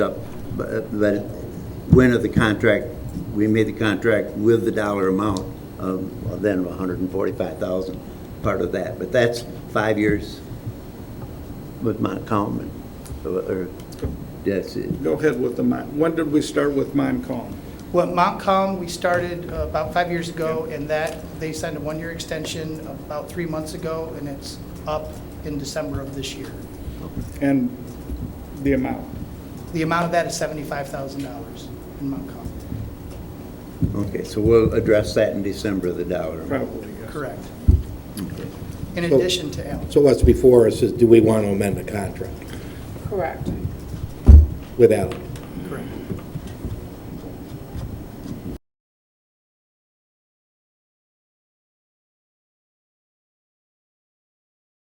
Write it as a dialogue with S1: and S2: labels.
S1: up, but but when of the contract, we made the contract with the dollar amount of, well, then of hundred and forty-five thousand, part of that, but that's five years with Mount Common, or, that's it.
S2: Go ahead with the mine. When did we start with mine Calm?
S3: Well, Montcalm, we started uh, about five years ago, and that, they signed a one-year extension about three months ago, and it's up in December of this year.
S2: And the amount?
S3: The amount of that is $75,000 in Montcalm.
S1: Okay, so we'll address that in December, the dollar amount.
S2: Probably, yes.
S3: Correct. In addition to Allen.
S4: So what's before us is, do we want to amend the contract
S5: Correct.
S4: with Allen?